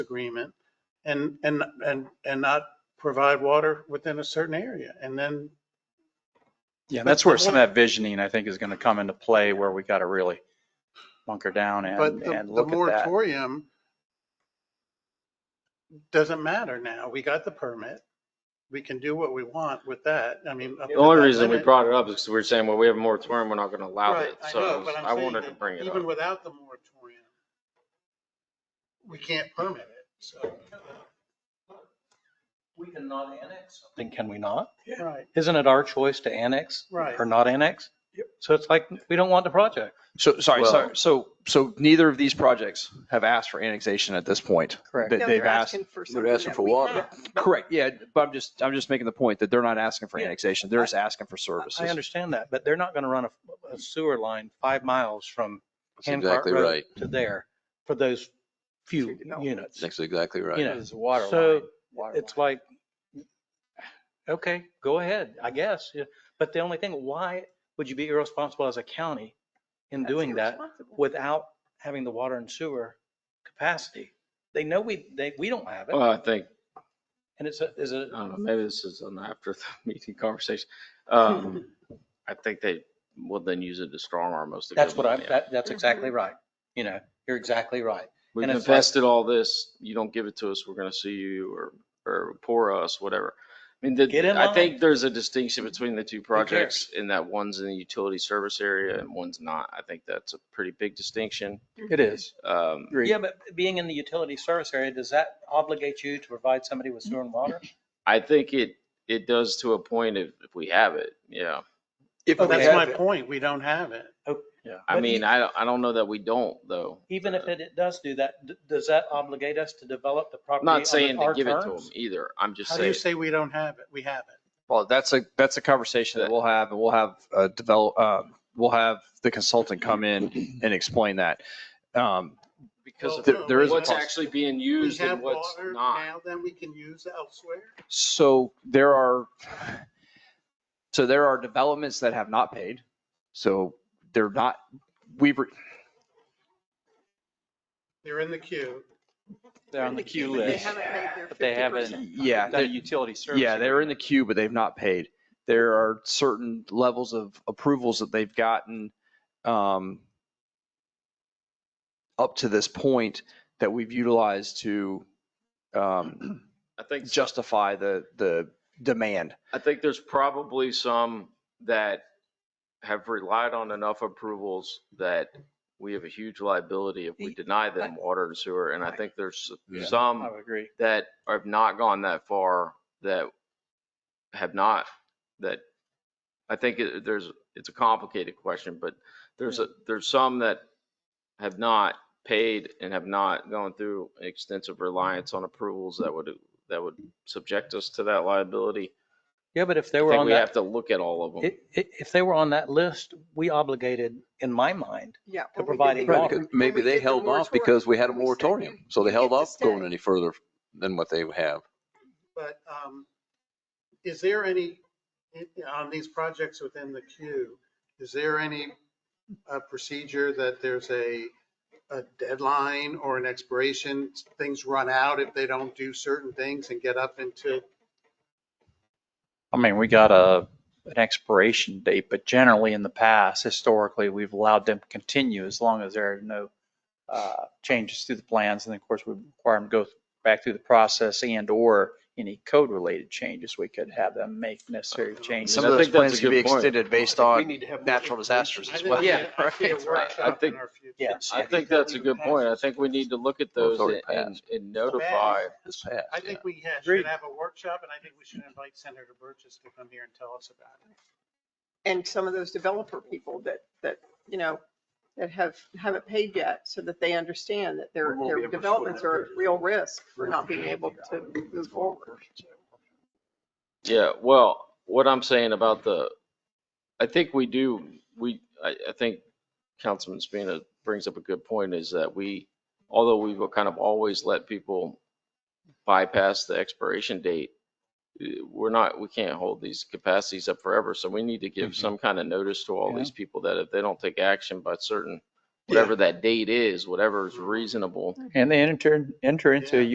agreement and, and, and, and not provide water within a certain area. And then, Yeah, that's where some of that visioning, I think, is going to come into play where we got to really bunker down but and, the and the look at that. moratorium doesn't matter now. We got the permit. We can do what we want with that. I mean. up The to only that reason we limit. brought it up is because we were saying, well, we have a moratorium, we're not going to allow Right, it. I know, So but I'm I saying wanted that to bring it Even up. without the moratorium, we can't permit it, so. We can not annex something, can we not? Right, Isn't it our choice to annex? Right. Or not annex? So it's like, we don't want the project. So, sorry, Well- sorry. So, so neither of these projects have asked for annexation at this point. Correct. That they've asked. They're asking for water. Correct. Yeah. But I'm just, I'm just making the point that they're not asking for Yeah. annexation. They're just asking for services. I understand that, but they're not going to run a a sewer line five miles from That's Hancock exactly Road right. to there for those few units. That's exactly You right. know, so it's like, okay, go ahead, I guess. Yeah. But the only thing, why would you be irresponsible as a county in doing that without having the water and sewer capacity? They know we, they, we don't have it. Well, I think, And it's, a- is it, uh, I don't know, maybe this is an after the meeting conversation. Um, I think they will then use it to strong arm most of the that's what I'm, government, yeah. that, that's exactly right. You know, you're exactly right. We've and it's invested all this, you don't give it to us, we're going to sue you or, or pour us, whatever. I mean, Get the- in I line. think there's a distinction between the two projects in that one's in the utility service area and one's not. I think that's a pretty big distinction. It is. Um, Yeah, but being in the utility service area, does that obligate you to provide somebody with sewer and water? I think it, it does to a point if, if we have it, yeah. If we that's have my point, we don't have it. I But mean, e- I, don't- I don't know that we don't though. Even if it it does do that, d- does that obligate us to develop the I'm property? not saying under to our give it to them terms? either. I'm just How do you say saying, we don't have it? We have it. Well, that's a, that's a conversation that we'll have and we'll have uh develop, uh, we'll have the consultant come in and explain that. Um, because Well, of there- there is a what's cost. actually being We used have and what's water not. now that we can use elsewhere. So there are, so there are developments that have not paid. So they're not, we've, re- They're in the queue. They're on the queue list, but they haven't yeah. done a they're- utility service. Yeah, they're in the agreement. queue, but they've not paid. There are certain levels of approvals that they've gotten um, up to this point that we've utilized to um, I think, so. justify the, the demand. I think there's probably some that have relied on enough approvals that we have a huge liability if we deny them water and sewer. And I think there's Yeah. some I would agree. that have not gone that far that have not that I think it- there's it's a complicated question, but there's a there's some that have not paid and have not gone through extensive reliance on approvals that would that would subject us to that liability. Yeah, but if they I were think on we have to that, look at all of them. i- i- if they were on that list, we obligated, in my mind, Yeah. to providing Right, water. because Maybe they held off because we had a moratorium, so they held get to off going stay. any further than what they have. But um, is there any, on these projects within the queue, is there any uh, procedure that there's a, a deadline or an expiration? Things run out if they don't do certain things and get up into, I mean, we got a, an expiration date, but generally in the past, historically, we've allowed them to continue as long as there are no uh, changes to the plans. And of course, we require them to go back through the process and or any code related changes we could have them make necessary changes. Some I of those think that's plans a could be good point. extended based on natural disasters I as think, well. Yeah, I see a right. I workshop in think- our future. Yes. I think that's a good point. I think we need to look at those already and passed. and notify. It's passed, I yeah. think we ha- Agreed. should have a workshop and I think we should invite Senator Burgess to come here and tell us about it. And some of those developer people that, that, you know, that have, haven't paid yet, so that they understand that their, their developments are at real risk for not being able to move forward. Yeah, well, what I'm saying about the, I think we do, we, I, I think Councilman Spina brings up a good point is that we, although we will kind of always let people bypass the expiration date, eh, we're not, we can't hold these capacities up forever. So we need to give some kind of notice to all these people that if they don't take action by certain, whatever that date is, whatever is reasonable, And they enter, enter into a Yeah.